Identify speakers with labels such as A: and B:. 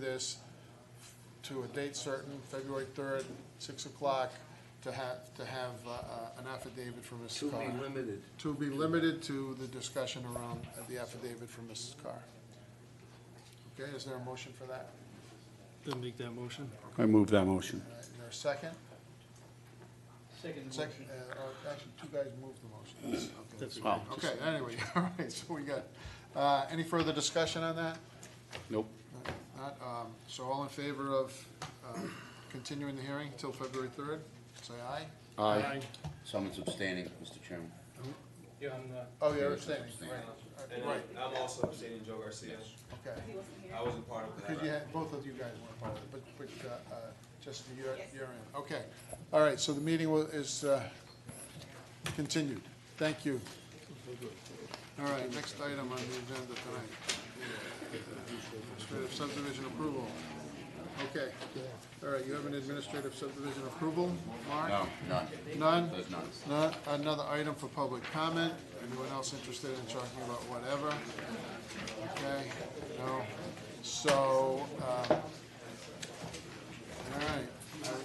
A: this to a date certain, February 3rd, 6 o'clock, to have, to have uh, uh, an affidavit from
B: To
A: Mrs.
B: be
A: Carr.
B: limited.
A: To be limited to the discussion around the affidavit from Mrs. Carr. Okay, is there a motion for that?
C: I'll make that motion.
D: I move that motion.
A: All right, Uh, Is there a second?
E: Second
A: Second, uh, oh, actually, two guys moved the motion. Okay,
C: That's
A: that's-
D: Oh,
A: Okay, anyway, all right, so we got, uh, any further discussion on that?
D: nope.
A: Not, um, So all in favor of um, continuing the hearing until February 3rd, say aye.
D: Aye. Someone's abstaining, Mr. Chairman.
E: Yeah, I'm not.
A: Oh, you're abstaining,
D: Abstaining.
A: right.
F: And
A: Uh, Right,
F: I'm- I'm also abstaining, Joe Garcia.
A: okay.
F: I wasn't part of that.
A: Because you had, both of you guys weren't part of it, but, but uh, uh, just your, your end. Okay, all right, so the meeting will- is uh, continued. Thank you. All right, next item on the agenda tonight. Administrative subdivision approval. Okay, all right, you have an administrative subdivision approval, Mark?
D: No, none.
A: None?
D: There's none.
A: Not, another item for public comment, anyone else interested in talking about whatever? Okay, no, uh,